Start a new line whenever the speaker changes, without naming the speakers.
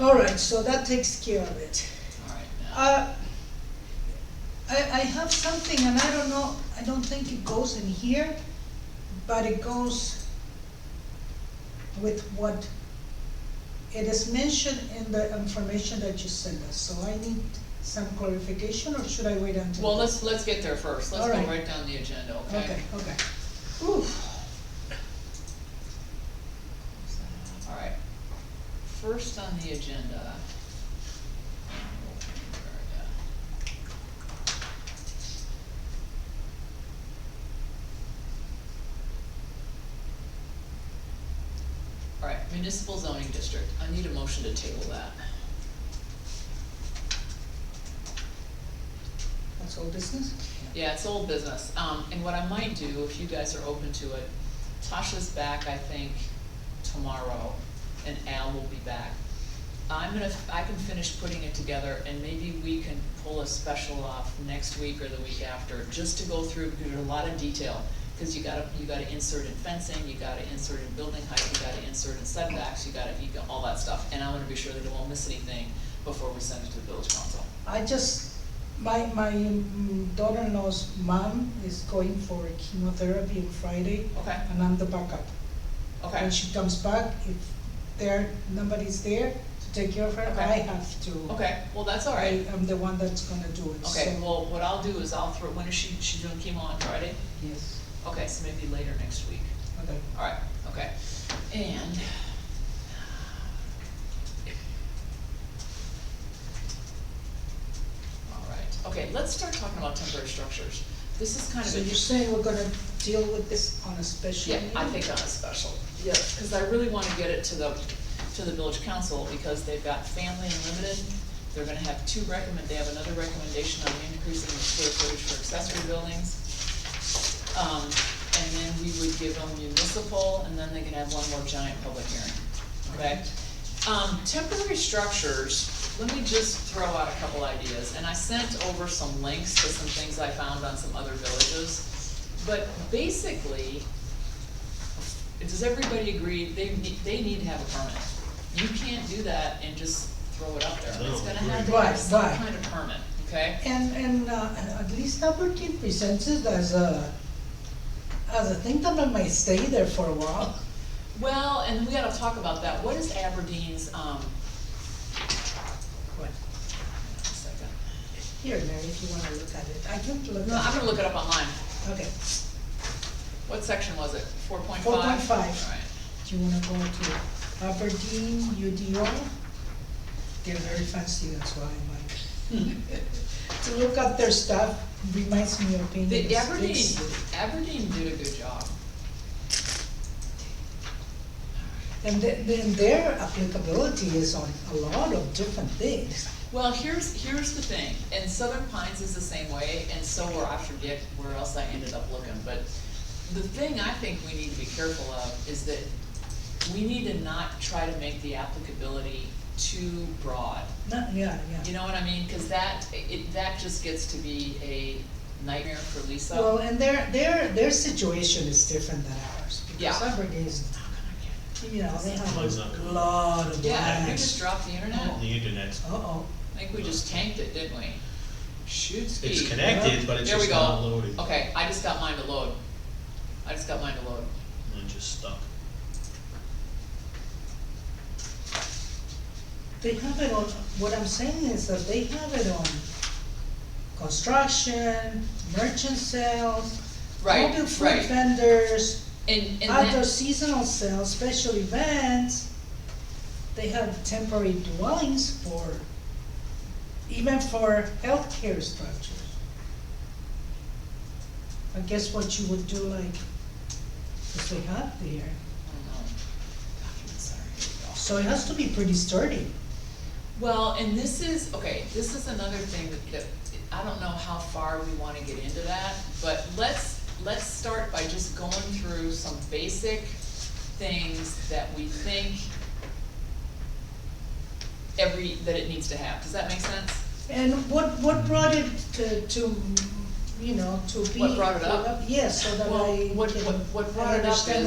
All right, so that takes care of it.
All right, now,
Uh, I, I have something, and I don't know, I don't think it goes in here, but it goes with what, it is mentioned in the information that you sent us, so I need some clarification, or should I wait until?
well, let's, let's get there first, let's
All
go
right.
right down the agenda,
Okay,
okay?
okay. Oof,
All right, first on the agenda. All right, municipal zoning district, I need a motion to table that.
that's all business?
Yeah, it's old business, um, and what I might do, if you guys are open to it, Tasha's back, I think, tomorrow, and Al will be back. I'm gonna, I can finish putting it together, and maybe we can pull a special off next week or the week after, just to go through, because there's a lot of detail, cause you gotta, you gotta insert in fencing, you gotta insert in building height, you gotta insert in setbacks, you gotta, you got all that stuff, and I wanna be sure that it won't miss anything before we send it to the village council.
I just, my, my mm, daughter-in-law's mom is going for chemotherapy on Friday,
Okay,
and I'm the backup.
okay,
When she comes back, if there, nobody's there to take care of her,
Okay.
I have to.
okay, well, that's all right.
I am the one that's gonna do it, so.
Okay, well, what I'll do is I'll throw, when is she, she doing chemo on Friday?
Yes,
Okay, so maybe later next week.
okay.
Alright, okay. And. Alright, okay, let's start talking about temporary structures. This is kind of
So
a.
you're saying we're gonna deal with this on a special
Yeah,
meeting?
I think on a special, yeah, because I really wanna get it to the, to the village council, because they've got family unlimited. They're gonna have two recommend, they have another recommendation on increasing the square footage for accessory buildings. Um, and then we would give them municipal, and then they can have one more giant public hearing, okay? Um, temporary structures, let me just throw out a couple ideas, and I sent over some links to some things I found on some other villages. But basically, does everybody agree, they need, they need to have a permit? You can't do that and just throw it up there, it's gonna have to
Right,
have some
right.
kind of permit, okay?
And, and, uh, at least Aberdeen presents it as a, as a thing that I might stay there for a while.
Well, and we gotta talk about that, what is Aberdeen's, um,
What?
hang on a second.
Here, Mary, if you wanna look at it, I can't look at it.
No, I'm gonna look it up online,
Okay,
what section was it, four point five?
4.5.
Alright,
do you wanna go to Aberdeen UDO? They're very fancy, that's why I'm
Hmm.
like. To look at their stuff reminds me of being. in
the
the
Aberdeen,
States.
Aberdeen did a good job.
And then, then their applicability is on a lot of different things.
Well, here's, here's the thing, and Southern Pines is the same way, and so were, I forget where else I ended up looking, but the thing I think we need to be careful of is that we need to not try to make the applicability too broad.
Not, yeah,
You
yeah.
know what I mean? Cause that, it, that just gets to be a nightmare for Lisa.
Well, and their, their, their situation is different than ours. Because
Yeah.
Aberdeen is, you know, they
Plug's
have
not
a
coming.
lot of
Yeah, did we just
lands.
dropped the internet?
Oh.
The internet's,
Uh-oh.
I think we just tanked it, didn't we? Shoot, ski.
it's connected, but it's
There we
just not
go.
loaded, and
Okay, I just got mine to load. I just got mine to load.
it's just stuck.
They have it on, what I'm saying is that they have it on construction, merchant sales,
Right,
mobile food
right.
vendors,
And, and
outdoor
that,
seasonal sales, special events. They have temporary dwellings for, even for healthcare structures. I guess what you would do like, if they have there, so it has to be pretty sturdy.
well, and this is, okay, this is another thing that, that, I don't know how far we wanna get into that, but let's, let's start by just going through some basic things that we think every, that it needs to have, does that make sense?
And what, what brought it to, to, you know, to be.
What brought it up?
Yes, so that
Well,
I
what-
can-
what- what
I
brought it up
understand
is-